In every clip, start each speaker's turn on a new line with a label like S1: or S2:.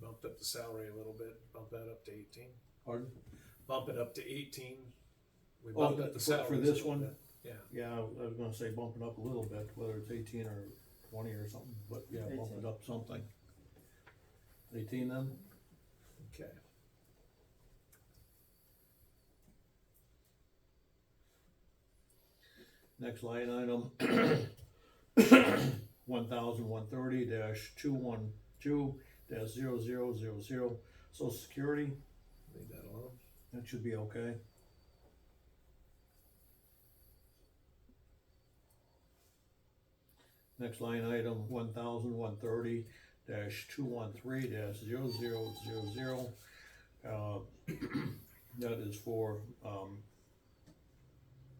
S1: bumped up the salary a little bit, bump that up to eighteen,
S2: Pardon?
S1: bump it up to eighteen. We
S2: Oh,
S1: bumped up
S2: for-
S1: the
S2: for
S1: salary
S2: this one?
S1: Yeah,
S2: Yeah, I was gonna say bump it up a little bit, whether it's eighteen or twenty or something, but yeah, bump it
S3: 18.
S2: up something. Eighteen then?
S1: okay.
S2: Next line item, one thousand one thirty dash two one two dash zero zero zero zero, social security,
S1: Leave that alone.
S2: that should be okay. Next line item, one thousand one thirty dash two one three dash zero zero zero zero. Uh, that is for, um,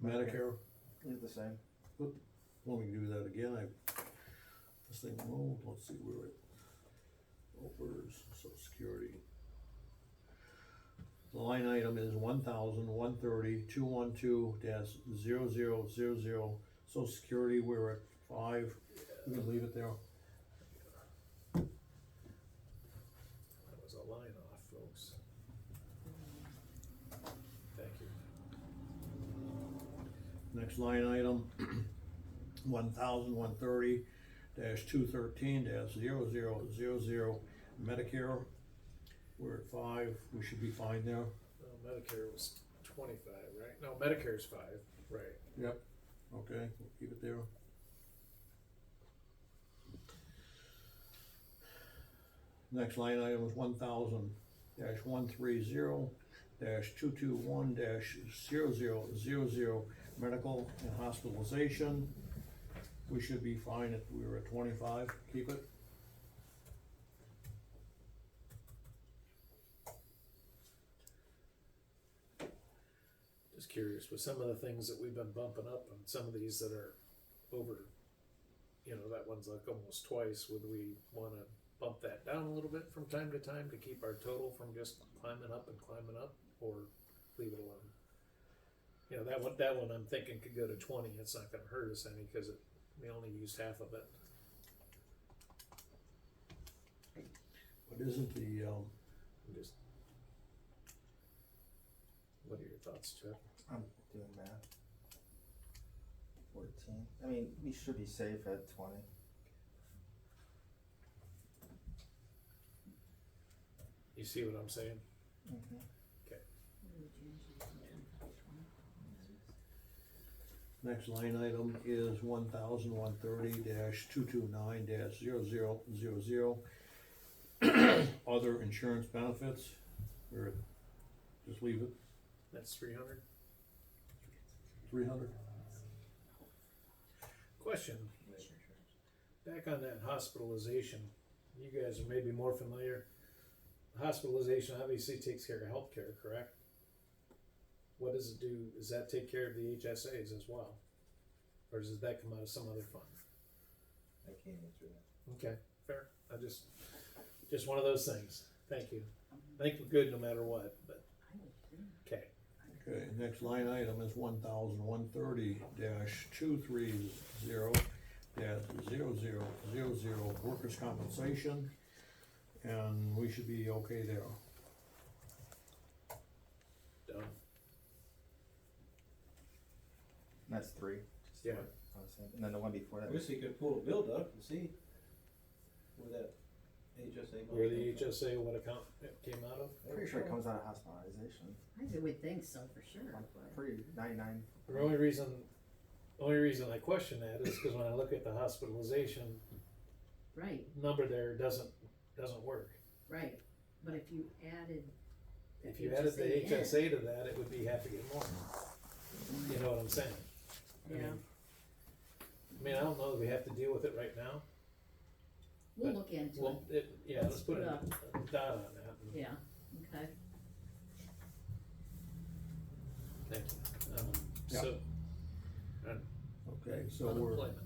S2: Medicare.
S3: Leave the same.
S2: Let me do that again, I, this thing, oh, let's see where it, oh, where's social security? The line item is one thousand, one thirty, two one two dash zero zero zero zero, social security, we're at five, we can leave it there.
S1: That was a line off, folks. Thank you.
S2: Next line item, one thousand, one thirty dash two thirteen dash zero zero zero zero, Medicare, we're at five, we should be fine there.
S1: Well, Medicare was twenty-five, right? No, Medicare's five, right?
S2: Yep. Okay, we'll keep it there. Next line item is one thousand dash one three zero dash two two one dash zero zero zero zero, medical and hospitalization. We should be fine if we were at twenty-five, keep it.
S1: Just curious, with some of the things that we've been bumping up and some of these that are over, you know, that one's like almost twice, would we wanna bump that down a little bit from time to time to keep our total from just climbing up and climbing up, or leave it alone? You know, that one, that one I'm thinking could go to twenty, it's not gonna hurt us any, cause it, we only used half of it.
S2: But isn't the, um,
S1: I'm just. What are your thoughts, Chuck?
S3: I'm doing math. Fourteen. I mean, we should be safe at twenty.
S1: You see what I'm saying?
S2: Next line item is one thousand one thirty dash two two nine dash zero zero zero zero. Other insurance benefits, or just leave it
S1: That's three hundred?
S2: three hundred?
S1: Question. Back on that hospitalization, you guys are maybe more familiar. Hospitalization obviously takes care of healthcare, correct? What does it do? Does that take care of the HSAs as well? Or does that come out of some other fund?
S3: I can't answer that.
S1: Okay, fair. I just, just one of those things. Thank you. I think we're good no matter what, but, okay.
S2: Okay, next line item is one thousand one thirty dash two three zero dash zero zero zero zero workers' compensation. And we should be okay there.
S1: Done.
S3: And that's three. just the
S1: Yeah.
S3: one I was saying. And then the one before that.
S4: I wish they could pull a build up and see where that HSA. money
S1: Where the
S4: comes from.
S1: HSA, what account it came out of?
S3: Pretty sure it comes out of hospitalization.
S5: I would think so for sure,
S3: I'm
S5: but
S3: pretty ninety-nine.
S1: The only reason, only reason I question that is because when I look at the hospitalization
S5: right,
S1: number there, doesn't doesn't work.
S5: right. But if you added.
S1: If you added the
S5: in,
S1: HSA to that, it would be half again more. You know what I'm saying? I
S5: Yeah,
S1: mean- I mean, I don't know that we have to deal with it right now.
S5: we'll look into it,
S1: Well, it, yeah, let's put a a dot on that. and-
S5: yeah, okay.
S1: Thank you. Um,
S2: Yeah.
S1: So,
S2: Okay, so we're.
S1: unemployment.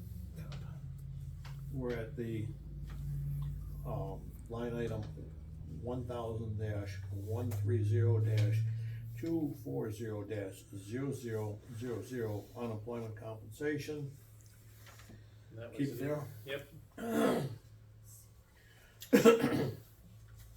S2: We're at the, um, line item one thousand dash one three zero dash two four zero dash zero zero zero zero unemployment compensation.
S1: And that was
S2: Keep it there.
S1: Yep.